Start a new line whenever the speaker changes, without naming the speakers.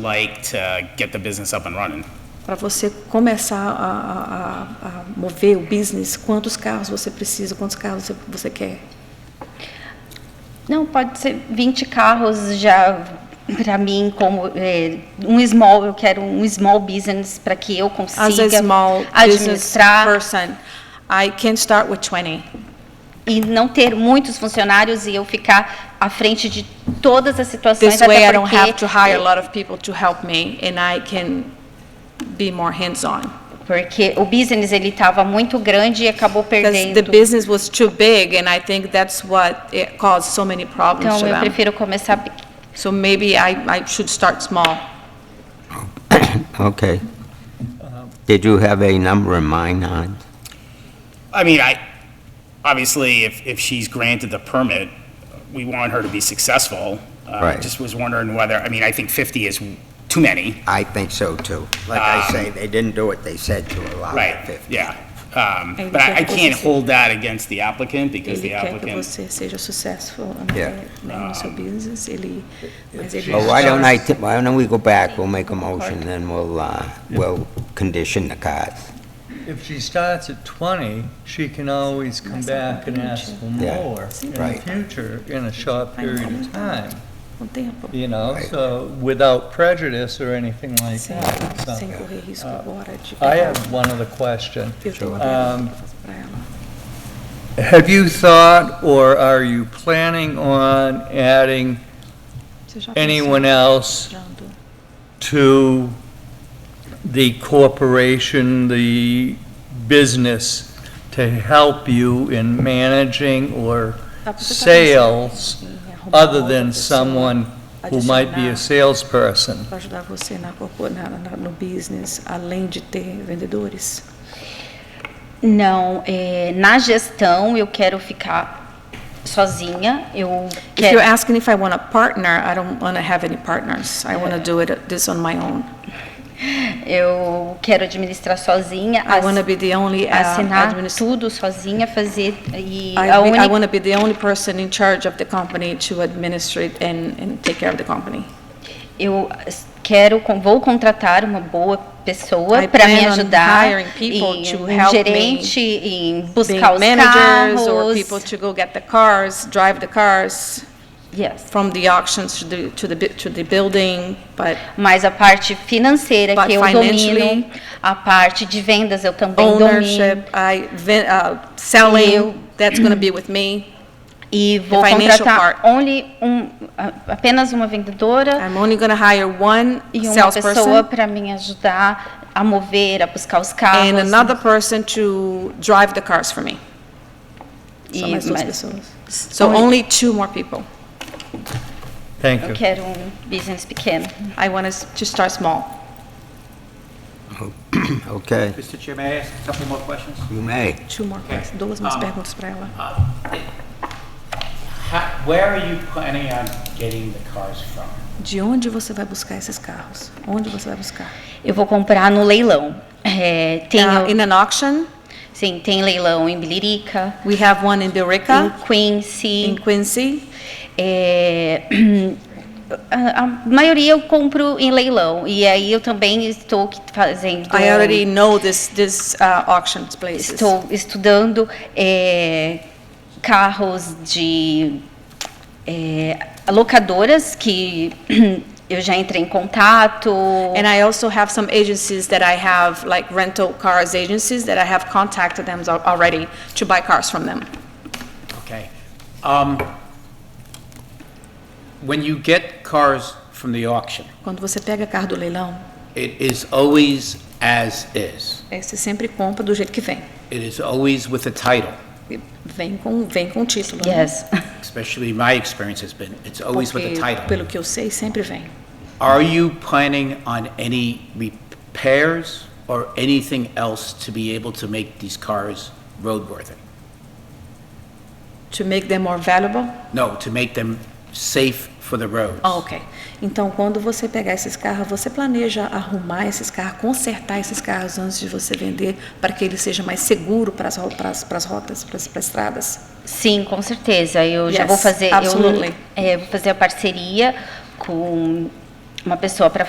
like to get the business up and running?
Para você começar a, a- a- a mover o business, quantos carros você precisa, quantos carros você, você quer?
Não, pode ser 20 carros já para mim como é, um small, eu quero um small business para que eu consiga
As a small business
administrar
person, I can start with 20.
e não ter muitos funcionários e eu ficar à frente de todas as situações
This
até
way I don't
porque-
have to hire a lot of people to help me and I can be more hands-on.
porque o business ele estava muito grande e acabou
Because the
perdendo.
business was too big and I think that's what it caused so many problems
Então
to
eu
them.
prefiro começar pe-
So maybe I, I should start small.
Okay. Did you have a number in mind on it?
I mean, I, obviously, if, if she's granted the permit, we want her to be successful. Uh, I
Right.
Just was wondering whether, I mean, I think 50 is too many,
I think so, too. Like I
Um,
say, they didn't do what they said to allow the
right?
50.
Yeah. Um,
And
But I I
that was
can't
the-
hold that against the applicant because the
Ele quer que
applicant,
você seja successful
Yeah.
né, no seu business, ele, mas ele...
Well, why don't I, why don't we go back, we'll make a motion, then we'll, uh, we'll condition the cars.
If she starts at 20, she can always come back and ask for
Yeah,
more in the
right.
future in a short period of time,
Um tempo,
you know,
Right.
so without prejudice or anything like
sem,
that.
sem
So,
correr risco agora de...
Ah. I have one other question.
Eu tenho uma
Um,
pergunta pra ela.
Have you thought, or are you planning on adding
Você já
anyone
pensou
else
entrando?
to the corporation, the business, to help you in managing or
Dá pra você tá
sales
pensando em arrumar
other
outra
than
pessoa
someone who might be a
adicionar
salesperson.
Para ajudar você na, corpo- na, na- no business, além de ter vendedores?
não é, na gestão eu quero ficar sozinha. Eu
If you're
quero
asking if I want a partner, I don't want to have any partners. I want to do it this on my own.
Eu quero administrar sozinha,
I
ass-
want to be the only uh,
assinar
administ-
tudo sozinha, fazer e
I,
a única,
want to be the only person in charge of the company to administrate and, and take care of the company.
eu as- quero con- vou contratar uma boa pessoa
I
para me
plan on
ajudar
hiring people
e
to
um
help me
gerente em
Being
buscar os
managers or
carros.
people to go get the cars, drive the cars
Yes.
from the auctions to the, to the, bu- to the building, but
Mas a parte financeira
But
que eu
financially-
domino, a parte de vendas eu também domino
ownership, I, ven- uh, selling,
Eu-
that's going to be with me.
e vou
financial
contratar
part.
only um, a- apenas uma vendedora
I'm only going to hire one
e uma pessoa
salesperson
para me ajudar a mover, a buscar os carros.
and another person to drive the cars for me.
e-
Só mais duas
mas-
pessoas. So only two more people.
Thank
Eu
you.
quero um business pequeno.
I want us to start small.
Okay,
Mr. Chair, may I ask a couple more questions?
you may.
Two more,
Okay.
duas mais
Um,
perguntas para ela.
Ha- Where are you planning on getting the cars from?
De onde você vai buscar esses carros? Onde você vai buscar?
Eu vou comprar no leilão. É, tem,
Uh, in an auction,
sim, tem leilão em Bilirica,
we have Tá. one in Birica,
em Quincy.
in Quincy.
é, a, a maioria eu compro em leilão. E aí eu também estou que- fazendo.
I already know this, this uh, auction places.
Estou estudando é, carros de é, locadoras que eu já entrei em contato.
And I also have some agencies that I have, like rental cars agencies, that I have contacted them al- already to buy cars from them.
Okay. Um, When you get cars from the auction,
Quando você pega carro do leilão,
it is always as is.
é, você sempre compra do jeito que vem.
It is always with a title,
E Vem com, vem com o título. né?
Yes.
especially my experience has been, it's always with a
Porque,
title.
Pelo que eu sei, sempre vem.
Are you planning on any repairs or anything else to be able to make these cars roadworthy?
To make them more valuable?
No, to make them safe for the roads.
Ah, ok. Então, quando você pegar esses carros, você planeja arrumar esses carros, consertar esses carros antes de você vender, para que ele seja mais seguro para as rotas, para as estradas?
Sim, com certeza. Eu já
Yes,
vou fazer. eu,
absolutely.
é, vou fazer a parceria com uma pessoa para